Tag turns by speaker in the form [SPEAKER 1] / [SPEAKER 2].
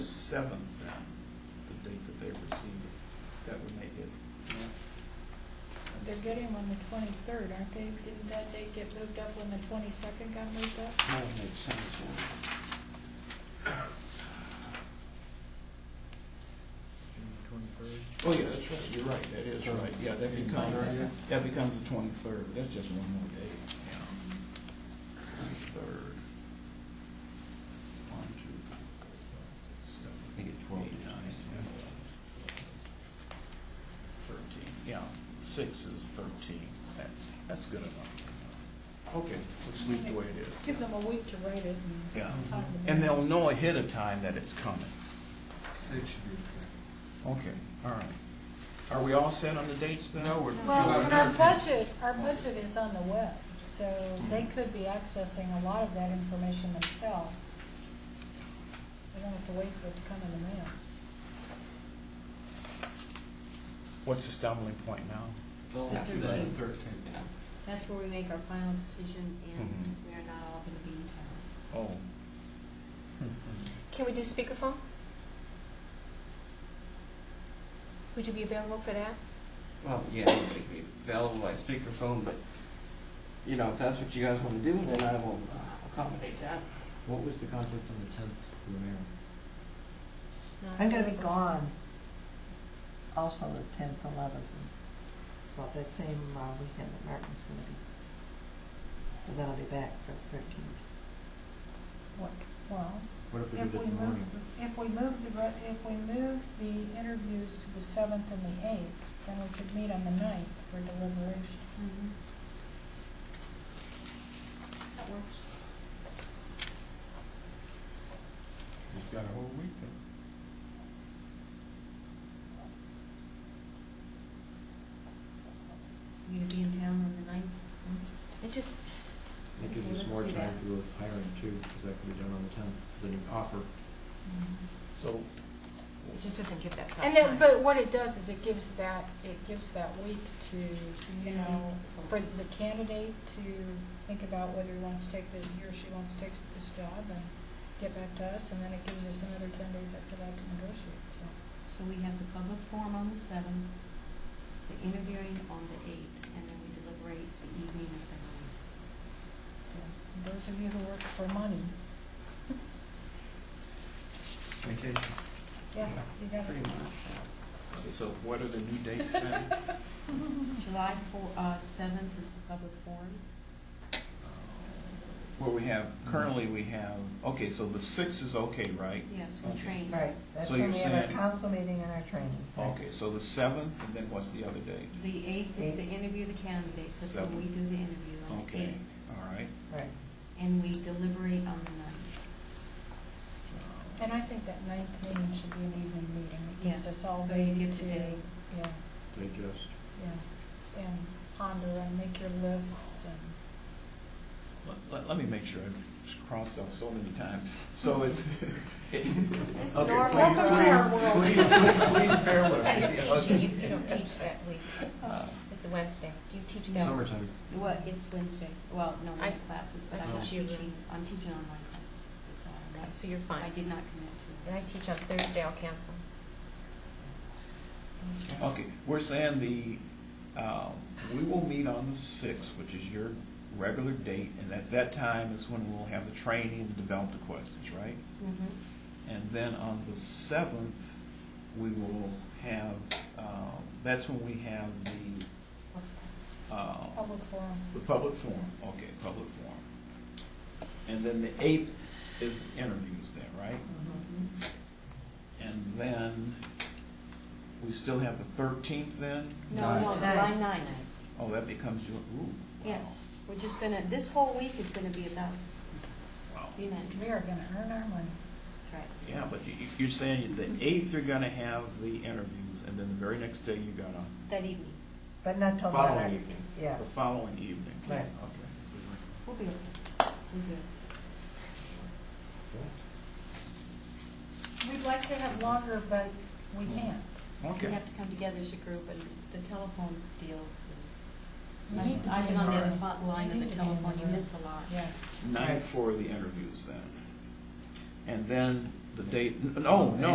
[SPEAKER 1] seventh then, the date that they receive it, that would make it.
[SPEAKER 2] They're getting on the twenty-third, aren't they? Didn't that date get moved up when the twenty-second got moved up?
[SPEAKER 3] That would make sense, yeah.
[SPEAKER 1] Oh, yeah, that's right, you're right, that is right, yeah, that becomes,
[SPEAKER 2] Right.
[SPEAKER 1] that becomes the twenty-third, that's just one more day. Twenty-third. One, two, seven,
[SPEAKER 4] I think it's
[SPEAKER 1] eight,
[SPEAKER 4] twelve
[SPEAKER 1] nine,
[SPEAKER 4] days.
[SPEAKER 1] ten, thirteen, yeah, six is thirteen, that, that's good enough. Okay, let's leave it the way it is.
[SPEAKER 2] Gives them a week to write it and.
[SPEAKER 1] Yeah,
[SPEAKER 2] time
[SPEAKER 5] Mm-hmm.
[SPEAKER 2] to
[SPEAKER 1] and
[SPEAKER 2] make
[SPEAKER 1] they'll know ahead of time that it's coming.
[SPEAKER 3] Six should be
[SPEAKER 1] Okay, all right. Are we all set on the dates then?
[SPEAKER 3] No,
[SPEAKER 2] it.
[SPEAKER 3] we're.
[SPEAKER 2] Well,
[SPEAKER 3] we're
[SPEAKER 2] and our
[SPEAKER 3] not-
[SPEAKER 2] budget, our budget is on the web, so they
[SPEAKER 5] Mm-hmm.
[SPEAKER 2] could be accessing a lot of that information themselves. They don't have to wait for it to come in the mail.
[SPEAKER 1] What's the stumbling point now?
[SPEAKER 6] Yeah.
[SPEAKER 3] Well,
[SPEAKER 6] Thirteen.
[SPEAKER 3] Thirteen.
[SPEAKER 6] That's where we make our final decision, and
[SPEAKER 5] Mm-hmm.
[SPEAKER 1] Mhm.
[SPEAKER 6] we are not all going to be in town.
[SPEAKER 1] Oh.
[SPEAKER 7] Can we do speakerphone? Would you be available for that?
[SPEAKER 4] Well, yeah, anybody could be available by speakerphone, but, you know, if that's what you guys want to do, then I will uh, accommodate that.
[SPEAKER 3] What was the conflict on the tenth for the mayor?
[SPEAKER 6] It's not
[SPEAKER 5] I'm gonna be
[SPEAKER 6] available.
[SPEAKER 5] gone also the tenth, eleventh, and, well, that same uh, weekend that Martin's gonna be. But then I'll be back for the thirteenth.
[SPEAKER 2] What, well,
[SPEAKER 3] What if we
[SPEAKER 2] if
[SPEAKER 3] did
[SPEAKER 2] we
[SPEAKER 3] it in the
[SPEAKER 2] move,
[SPEAKER 3] morning?
[SPEAKER 2] if we move the, re- if we move the interviews to the seventh and the eighth, then we could meet on the ninth for deliberation.
[SPEAKER 6] Mhm. That works.
[SPEAKER 3] You've got a whole week then.
[SPEAKER 6] You going to be in town on the ninth?
[SPEAKER 7] It just,
[SPEAKER 3] That
[SPEAKER 6] Okay,
[SPEAKER 3] gives us
[SPEAKER 6] let's
[SPEAKER 3] more
[SPEAKER 6] do
[SPEAKER 3] time
[SPEAKER 6] that.
[SPEAKER 3] for the hiring too, because that can be done on the tenth, then you offer.
[SPEAKER 1] So,
[SPEAKER 6] It just doesn't give that thought
[SPEAKER 2] And then, but what it does is it gives that, it gives that week to, you know, for the candidate to think about whether he wants to take the, he or she wants to take this job and get back to us, and then it gives us another ten days after that to negotiate, so.
[SPEAKER 6] So we have the public forum on the seventh, the interviewing on the eighth, and then we deliberate the evening of the
[SPEAKER 2] so
[SPEAKER 6] ninth.
[SPEAKER 2] Those of you who work for money,
[SPEAKER 4] Vacation.
[SPEAKER 2] yeah, you got
[SPEAKER 4] Pretty
[SPEAKER 2] it.
[SPEAKER 4] much.
[SPEAKER 1] okay, so what are the new dates then?
[SPEAKER 6] July four, uh, seventh is the public forum.
[SPEAKER 1] Where we have, currently we have, okay, so the six is okay, right?
[SPEAKER 6] Yes, we
[SPEAKER 1] Okay.
[SPEAKER 6] train.
[SPEAKER 5] Right, that's
[SPEAKER 1] So
[SPEAKER 5] when
[SPEAKER 1] you're
[SPEAKER 5] we have
[SPEAKER 1] saying-
[SPEAKER 5] our council meeting and our training.
[SPEAKER 1] Okay, so the seventh, and then what's the other date?
[SPEAKER 6] The eighth is the interview of the candidates, that's when we do the interview on the
[SPEAKER 1] Okay,
[SPEAKER 6] eighth.
[SPEAKER 1] all right.
[SPEAKER 5] Right.
[SPEAKER 6] And we deliberate on the ninth.
[SPEAKER 2] And I think that ninth meeting should be an evening meeting, it gives
[SPEAKER 6] Yes,
[SPEAKER 2] us all
[SPEAKER 6] so
[SPEAKER 2] day
[SPEAKER 6] you get
[SPEAKER 2] to,
[SPEAKER 6] today.
[SPEAKER 2] yeah,
[SPEAKER 3] Digest.
[SPEAKER 2] yeah, and ponder and make your lists and.
[SPEAKER 1] Let- Let, let me make sure, I've just crossed off so many times. So it's.
[SPEAKER 6] It's
[SPEAKER 1] Okay,
[SPEAKER 6] normal
[SPEAKER 1] please-
[SPEAKER 6] for our
[SPEAKER 1] please-
[SPEAKER 6] world.
[SPEAKER 1] Please, please bear with
[SPEAKER 7] I
[SPEAKER 1] me.
[SPEAKER 7] don't teach you, you you don't teach that week,
[SPEAKER 1] Uh,
[SPEAKER 7] it's the Wednesday. Do you teach that?
[SPEAKER 3] Summertime.
[SPEAKER 6] What, it's Wednesday, well, no, we
[SPEAKER 7] I-
[SPEAKER 6] have classes, but
[SPEAKER 7] I
[SPEAKER 6] I'm not
[SPEAKER 7] teach you.
[SPEAKER 6] teaching, I'm teaching online class, so that's,
[SPEAKER 7] So you're
[SPEAKER 6] I
[SPEAKER 7] fine.
[SPEAKER 6] did not commit to
[SPEAKER 7] And I teach on Thursday, I'll cancel.
[SPEAKER 6] it.
[SPEAKER 1] Okay, we're saying the, um, we will meet on the sixth, which is your regular date, and at that time is when we'll have the training and develop the questions, right?
[SPEAKER 6] Mhm.
[SPEAKER 1] And then on the seventh, we will have, um, that's when we have the, um,
[SPEAKER 2] Public forum.
[SPEAKER 1] the public forum, okay, public forum. And then the eighth is interviews then, right?
[SPEAKER 6] Mhm.
[SPEAKER 1] And then, we still have the thirteenth then?
[SPEAKER 6] No, no,
[SPEAKER 5] Nine.
[SPEAKER 6] July ninth,
[SPEAKER 1] Oh, that becomes your, ooh. wow.
[SPEAKER 6] yes, we're just gonna, this whole week is gonna be about,
[SPEAKER 1] Wow.
[SPEAKER 6] see, that,
[SPEAKER 2] We are gonna earn our money.
[SPEAKER 6] that's right.
[SPEAKER 1] Yeah, but you, you- you're saying the eighth, you're gonna have the interviews, and then the very next day, you got on,
[SPEAKER 6] That evening,
[SPEAKER 5] But not till then,
[SPEAKER 3] Following
[SPEAKER 5] I-
[SPEAKER 3] evening.
[SPEAKER 5] yeah,
[SPEAKER 1] the following evening.
[SPEAKER 5] Right.
[SPEAKER 1] Okay.
[SPEAKER 6] we'll be okay, we'll be okay.
[SPEAKER 2] We'd like to have longer, but we
[SPEAKER 1] Mm.
[SPEAKER 2] can't.
[SPEAKER 6] We
[SPEAKER 1] Okay.
[SPEAKER 6] have to come together as a group, and the telephone deal is,
[SPEAKER 2] We
[SPEAKER 6] I've
[SPEAKER 2] need to
[SPEAKER 6] I've
[SPEAKER 2] be
[SPEAKER 6] been on the
[SPEAKER 2] in
[SPEAKER 6] other
[SPEAKER 2] the-
[SPEAKER 6] front line
[SPEAKER 2] we
[SPEAKER 6] of
[SPEAKER 2] need to
[SPEAKER 6] the
[SPEAKER 2] be in the
[SPEAKER 6] telephone, you
[SPEAKER 2] room.
[SPEAKER 6] miss a lot.
[SPEAKER 2] Yeah,
[SPEAKER 1] Nine for the interviews then. And then the date, no, no,